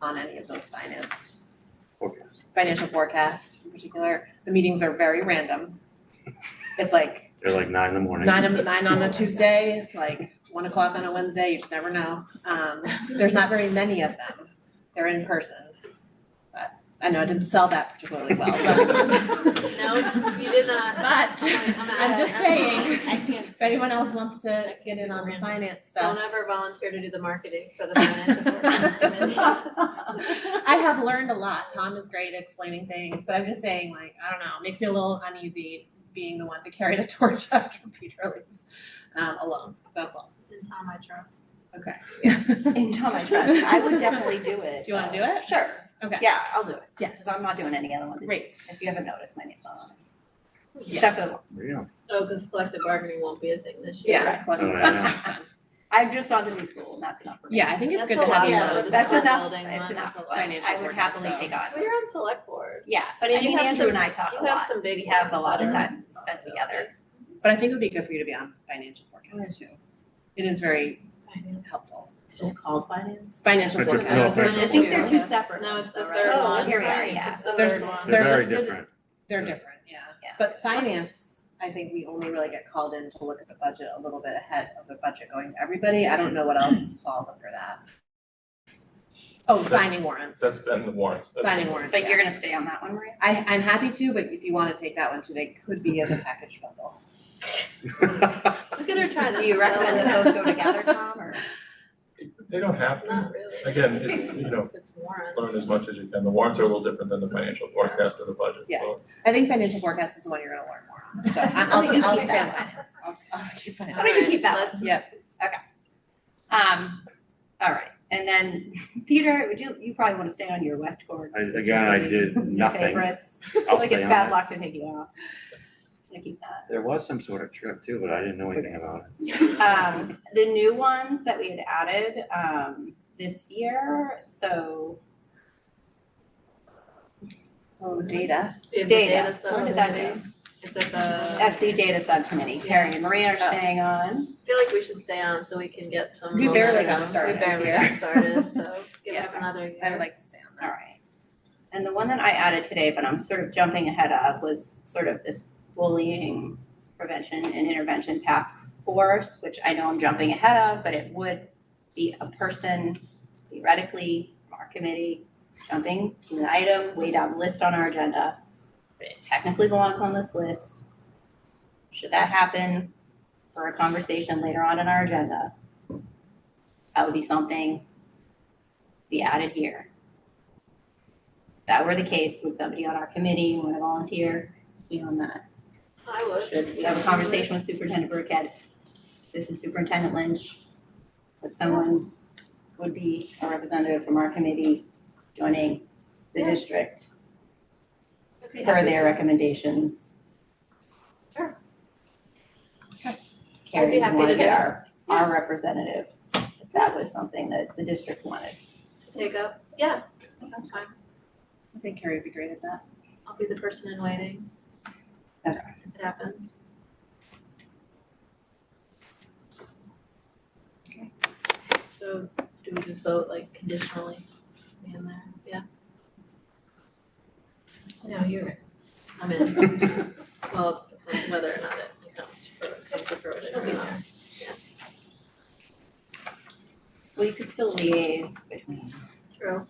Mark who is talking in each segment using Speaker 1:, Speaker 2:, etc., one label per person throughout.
Speaker 1: on any of those finance.
Speaker 2: Forecast.
Speaker 1: Financial forecasts in particular, the meetings are very random. It's like
Speaker 2: They're like nine in the morning.
Speaker 1: nine, nine on a Tuesday, like one o'clock on a Wednesday, you just never know. Um, there's not very many of them, they're in person. But I know I didn't sell that particularly well, but.
Speaker 3: No, you did not.
Speaker 1: But I'm just saying,
Speaker 3: I can't.
Speaker 1: if anyone else wants to get in on the finance
Speaker 3: Don't
Speaker 1: stuff.
Speaker 3: ever volunteer to do the marketing for the financial forecast committee.
Speaker 1: I have learned a lot. Tom is great at explaining things, but I'm just saying, like, I don't know, it makes me a little uneasy being the one to carry the torch after Peter leaves um, alone. That's all.
Speaker 3: And Tom, I trust.
Speaker 1: Okay.
Speaker 4: In Tom I trust, I would definitely do it.
Speaker 1: Do you want to do it?
Speaker 4: Sure,
Speaker 1: Okay.
Speaker 4: yeah, I'll do it,
Speaker 1: Yes.
Speaker 4: because I'm not doing any other ones.
Speaker 1: Great.
Speaker 4: If you haven't noticed, my name's not on it.
Speaker 1: Yeah.
Speaker 4: Except for the one,
Speaker 2: Yeah.
Speaker 3: Oh, because collective bargaining won't be a thing this year.
Speaker 4: yeah,
Speaker 1: Well,
Speaker 2: Oh, I know.
Speaker 1: next time.
Speaker 4: I'm just on to new school, and that's enough for me.
Speaker 1: Yeah, I think it's
Speaker 3: That's
Speaker 1: good
Speaker 3: a
Speaker 1: to have
Speaker 3: lot,
Speaker 1: you
Speaker 3: though.
Speaker 1: on.
Speaker 3: This
Speaker 4: That's
Speaker 3: one
Speaker 4: enough,
Speaker 3: building
Speaker 4: it's
Speaker 3: one,
Speaker 4: enough,
Speaker 3: that's a lot.
Speaker 4: I would happily take on.
Speaker 3: Well, you're on select board.
Speaker 4: Yeah, but
Speaker 3: I
Speaker 4: I
Speaker 3: mean,
Speaker 4: mean,
Speaker 3: you have
Speaker 4: Andrew
Speaker 3: some-
Speaker 4: and I talk a
Speaker 3: You have
Speaker 4: lot,
Speaker 3: some big.
Speaker 4: we have a lot of
Speaker 3: hands,
Speaker 4: time spent together.
Speaker 1: But I think it would be good for you to be on financial forecast too. It is very helpful.
Speaker 4: It's just called finance?
Speaker 1: Financial
Speaker 2: But they're- no,
Speaker 1: forecast.
Speaker 2: thanks.
Speaker 4: I think they're two
Speaker 1: Yes.
Speaker 4: separate
Speaker 3: No,
Speaker 4: ones
Speaker 3: it's the
Speaker 4: though, right?
Speaker 3: third
Speaker 4: Oh,
Speaker 3: one.
Speaker 4: here we are,
Speaker 3: Sorry,
Speaker 4: yeah.
Speaker 3: It's the
Speaker 1: There's-
Speaker 3: third one.
Speaker 1: They're
Speaker 2: They're very
Speaker 1: listed-
Speaker 2: different.
Speaker 1: They're
Speaker 2: Yeah.
Speaker 1: different, yeah.
Speaker 4: Yeah.
Speaker 1: But finance, I think we only really get called in to look at the budget a little bit ahead of the budget going to everybody. I don't know what else falls under that. Oh,
Speaker 5: That's-
Speaker 1: signing warrants.
Speaker 5: That's been the warrants. That's been
Speaker 1: Signing
Speaker 5: the
Speaker 1: warrants,
Speaker 4: But
Speaker 1: yeah.
Speaker 4: you're gonna stay on that one, Maria?
Speaker 1: I, I'm happy to, but if you want to take that one too, they could be as a package bundle.
Speaker 3: Look at her trying to.
Speaker 4: Do you
Speaker 3: sell
Speaker 4: recommend
Speaker 3: it.
Speaker 4: that those go together, Tom, or?
Speaker 5: They don't have to.
Speaker 3: Not really.
Speaker 5: Again, it's, you know,
Speaker 3: It's warrants.
Speaker 5: learn as much as you can. The warrants are a little different than the financial forecast or the budget,
Speaker 1: Yeah.
Speaker 5: so.
Speaker 1: I think financial forecast is the one you're gonna learn more on, so I- I'll,
Speaker 4: Why don't you
Speaker 1: I'll, I'll
Speaker 4: keep
Speaker 1: stay on
Speaker 4: that?
Speaker 1: finance, I'll, I'll keep finance.
Speaker 4: Why don't you keep that
Speaker 3: Alright, let's-
Speaker 1: Yeah.
Speaker 4: Um, all right, and then Peter, would you, you probably wanna stay on your West Court.
Speaker 2: I- Again, I did nothing.
Speaker 4: Favorites.
Speaker 2: I'll
Speaker 4: Like
Speaker 2: stay
Speaker 4: it's
Speaker 2: on
Speaker 4: bad
Speaker 2: it.
Speaker 4: luck to take you off. I keep that.
Speaker 2: There was some sort of trip too, but I didn't know anything about it.
Speaker 4: Um, the new ones that we had added, um, this year, so
Speaker 1: Oh, data,
Speaker 3: We have the
Speaker 4: data,
Speaker 3: set
Speaker 4: where did
Speaker 3: up
Speaker 4: that
Speaker 3: already.
Speaker 4: go?
Speaker 3: It's at the, I
Speaker 4: SD Data Subcommittee, Carrie and Maria are
Speaker 1: Oh.
Speaker 4: staying on.
Speaker 3: feel like we should stay on so we can get some.
Speaker 1: We barely got
Speaker 3: momentum.
Speaker 1: started
Speaker 3: We barely
Speaker 1: here.
Speaker 3: got started, so give us
Speaker 4: Yes.
Speaker 3: another
Speaker 1: I would
Speaker 3: year.
Speaker 1: like to stay on
Speaker 4: All
Speaker 1: that.
Speaker 4: right. And the one that I added today, but I'm sort of jumping ahead of, was sort of this bullying prevention and intervention task force, which I know I'm jumping ahead of, but it would be a person theoretically from our committee jumping to an item way down the list on our agenda. But it technically belongs on this list. Should that happen for a conversation later on in our agenda? That would be something to be added here that were the case, would somebody on our committee want to volunteer be on that?
Speaker 3: I would.
Speaker 4: Should we have a conversation with Superintendent Burkhead? This is Superintendent Lynch. That someone would be a representative from our committee joining the
Speaker 3: Yeah.
Speaker 4: district
Speaker 3: I'd be
Speaker 4: per
Speaker 3: happy
Speaker 4: their
Speaker 3: to-
Speaker 4: recommendations.
Speaker 3: Sure.
Speaker 1: Okay.
Speaker 4: Carrie,
Speaker 3: happy
Speaker 4: you want
Speaker 3: to
Speaker 4: to
Speaker 3: do
Speaker 4: get
Speaker 3: that.
Speaker 4: our, our representative, if that was something that the district wanted.
Speaker 3: to Take up, yeah, that's fine.
Speaker 1: I think Carrie would be great at that.
Speaker 3: I'll be the person in waiting.
Speaker 4: Okay.
Speaker 3: If it happens.
Speaker 1: Okay.
Speaker 3: So do we just vote like conditionally me in there? Yeah. No, you're right. I'm in. Well, it's kind of whether or not it comes to fruition, comes to fruition or not.
Speaker 4: Well, you could still liaise between.
Speaker 3: True.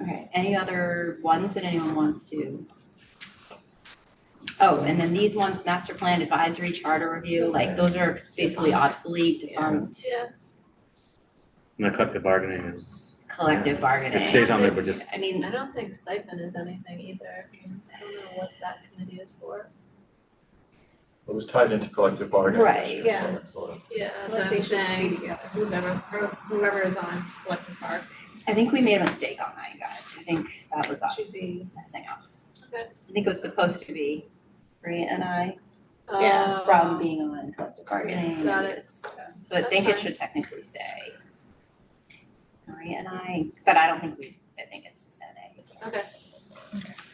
Speaker 4: Okay, any other ones that anyone wants to? Oh, and then these ones, master plan advisory, charter review, like those are basically obsolete, defunct,
Speaker 3: Yeah,
Speaker 2: And the collective bargaining is,
Speaker 4: collective
Speaker 2: it
Speaker 4: bargaining.
Speaker 2: stays on there, but just,
Speaker 4: I mean,
Speaker 3: I don't think stipend is anything either. I don't know what that committee is for.
Speaker 5: It was tied into collective bargaining
Speaker 4: Right,
Speaker 5: this year, so
Speaker 3: yeah.
Speaker 5: it's sort of-
Speaker 3: Yeah, that's what I'm saying. Whoever, whoever is on collective bargaining.
Speaker 4: I think we made a mistake on that, you guys. I think that was us
Speaker 3: Should be.
Speaker 4: messing up.
Speaker 3: Okay.
Speaker 4: I think it was supposed to be Maria and I
Speaker 3: Yeah,
Speaker 4: from being on collective bargaining.
Speaker 3: Oh. Got it.
Speaker 4: So I
Speaker 3: That's
Speaker 4: think it
Speaker 3: fine.
Speaker 4: should technically say Maria and I, but I don't think we, I think it's just NA.
Speaker 3: Okay.